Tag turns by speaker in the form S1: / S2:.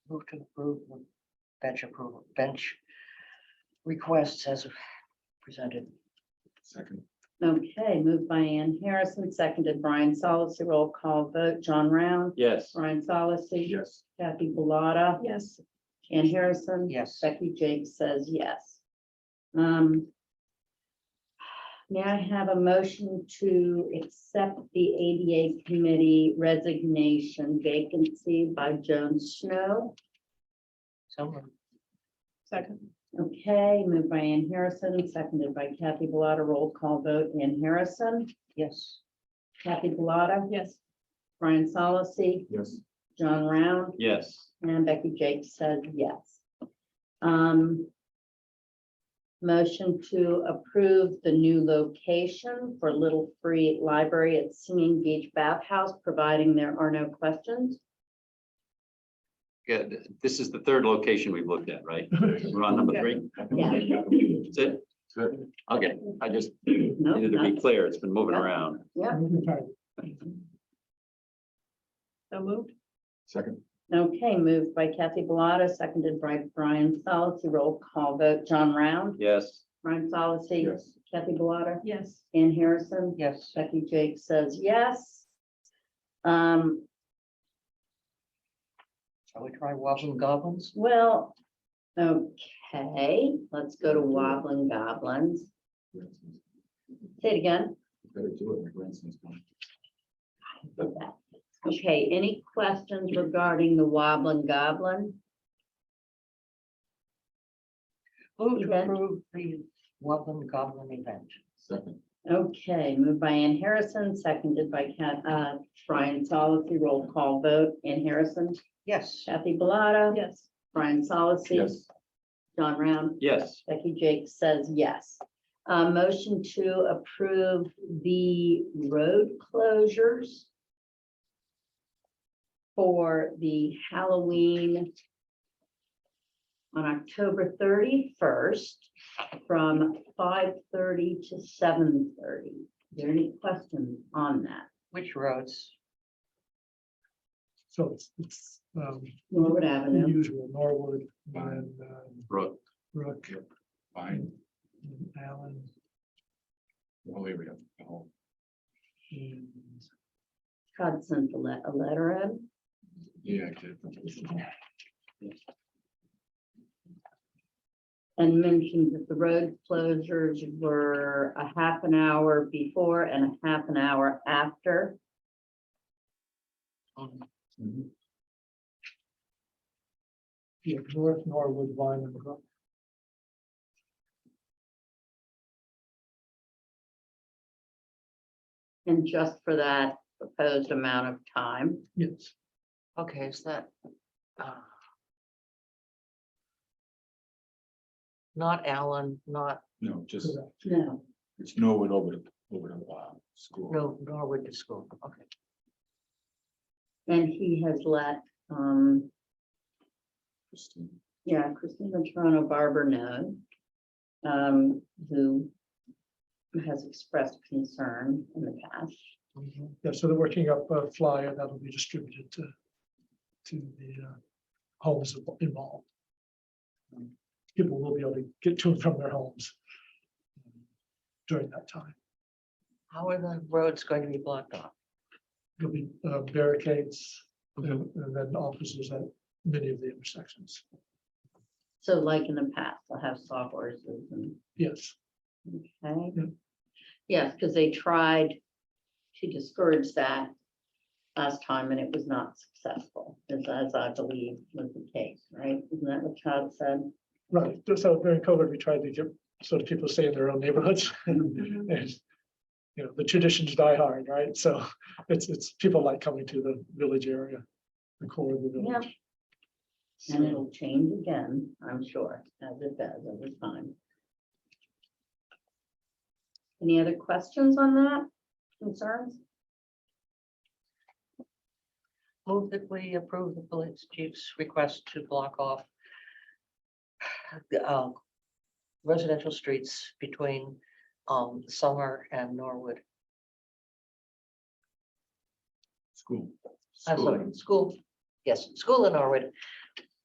S1: Move to approve the bench approval, bench requests as presented.
S2: Second.
S3: Okay, moved by Ann Harrison, seconded Brian Solacey. Roll call vote, John Round,
S4: Yes.
S3: Brian Solacey.
S2: Yes.
S3: Kathy Bellata.
S5: yes,
S3: Ann Harrison.
S1: Yes,
S3: Becky Jakes says yes. Um. May I have a motion to accept the ADA committee resignation vacancy by Joan Snow?
S1: someone,
S5: second,
S3: Okay, moved by Ann Harrison, seconded by Kathy Bellata. Roll call vote, Ann Harrison,
S1: yes,
S3: Kathy Bellata,
S5: yes,
S3: Brian Solacey,
S2: Yes.
S3: John Round,
S4: Yes.
S3: And Becky Jakes says yes. Um. Motion to approve the new location for Little Free Library at Singing Beach Bathhouse, providing there are no questions.
S4: Good. This is the third location we've looked at, right? We're on number three.
S3: Yeah.
S4: That's it? Okay, I just
S3: No,
S4: needed to be
S3: not-
S4: clear. It's been moving around.
S5: so moved,
S2: Second.
S3: Okay, moved by Kathy Bellata, seconded by Brian Solacey. Roll call vote. John Round,
S4: Yes.
S3: Brian Solacey,
S2: Yes.
S3: Kathy Bellata,
S5: yes,
S3: Ann Harrison.
S1: yes,
S3: Becky Jake says yes. Um,
S1: shall we try wobbling goblins?
S3: Well, okay, let's go to wobbling goblins. Say it again.
S2: Better do it, my grandson's going.
S3: Okay, any questions regarding the wobbling goblin?
S1: Move to
S3: Event.
S1: approve the wobbling goblin event.
S2: Second.
S3: Okay, moved by Ann Harrison, seconded by Cat, uh, Brian Solacey, roll call vote. Ann Harrison,
S1: Yes,
S3: Kathy Bellata.
S5: yes,
S3: Brian Solacey.
S2: Yes.
S3: John Round.
S4: Yes.
S3: Becky Jake says yes. Uh, motion to approve the road closures for the Halloween on October thirty-first from five thirty to seven thirty. Is there any questions on that?
S1: which roads?
S6: So it's, it's, um,
S3: Norwood
S6: the
S3: Avenue,
S6: usual Norwood and, um,
S4: Brooke.
S6: Brook
S2: Fine.
S6: and Allen
S2: Well, here we go. Oh, The whole-
S6: and
S3: Todd sent a le- a letter in.
S2: Yeah. I did.
S3: and mentioned that the road closures were a half an hour before and a half an hour after.
S1: Um,
S2: Mhm.
S6: yeah, North Norwood, Vine and Brook.
S3: And just for that proposed amount of time,
S6: Yes,
S1: Okay, is that? uh, Not Allen, not,
S2: No, just,
S6: correct.
S3: no,
S2: it's Norwood over to, over to, uh, school.
S1: no, Norwood to school, okay.
S3: and he has let, um,
S2: Christine.
S3: yeah, Christina Toronto Barber know. Um, who has expressed concern in the past.
S1: Mhm.
S6: Yeah, so they're working up a flyer that'll be distributed to, to the uh, homes involved. People will be able to get to and from their homes um, during that time.
S1: How are the roads going to be blocked off?
S6: There'll be uh, barricades and and then officers at many of the intersections.
S3: So like in the past, they'll have sawhorses and
S6: Yes.
S3: Okay.
S6: Yeah.
S3: Yes, because they tried to discourage that last time and it was not successful, as, as I believe was the case, right? Isn't that what Todd said?
S6: Right, so during COVID, we tried to get sort of people to stay in their own neighborhoods.
S3: Mhm.
S6: And, You know, the traditions die hard, right? So it's, it's people like coming to the village area, the core of the
S3: Yeah.
S6: village.
S3: And it'll change again, I'm sure, as it does over time. Any other questions on that? Concerns?
S1: Move that we approve the police chief's request to block off the, uh, residential streets between um, Summer and Norwood,
S2: School.
S1: I'm
S2: School.
S1: sorry, school, yes, school and Norwood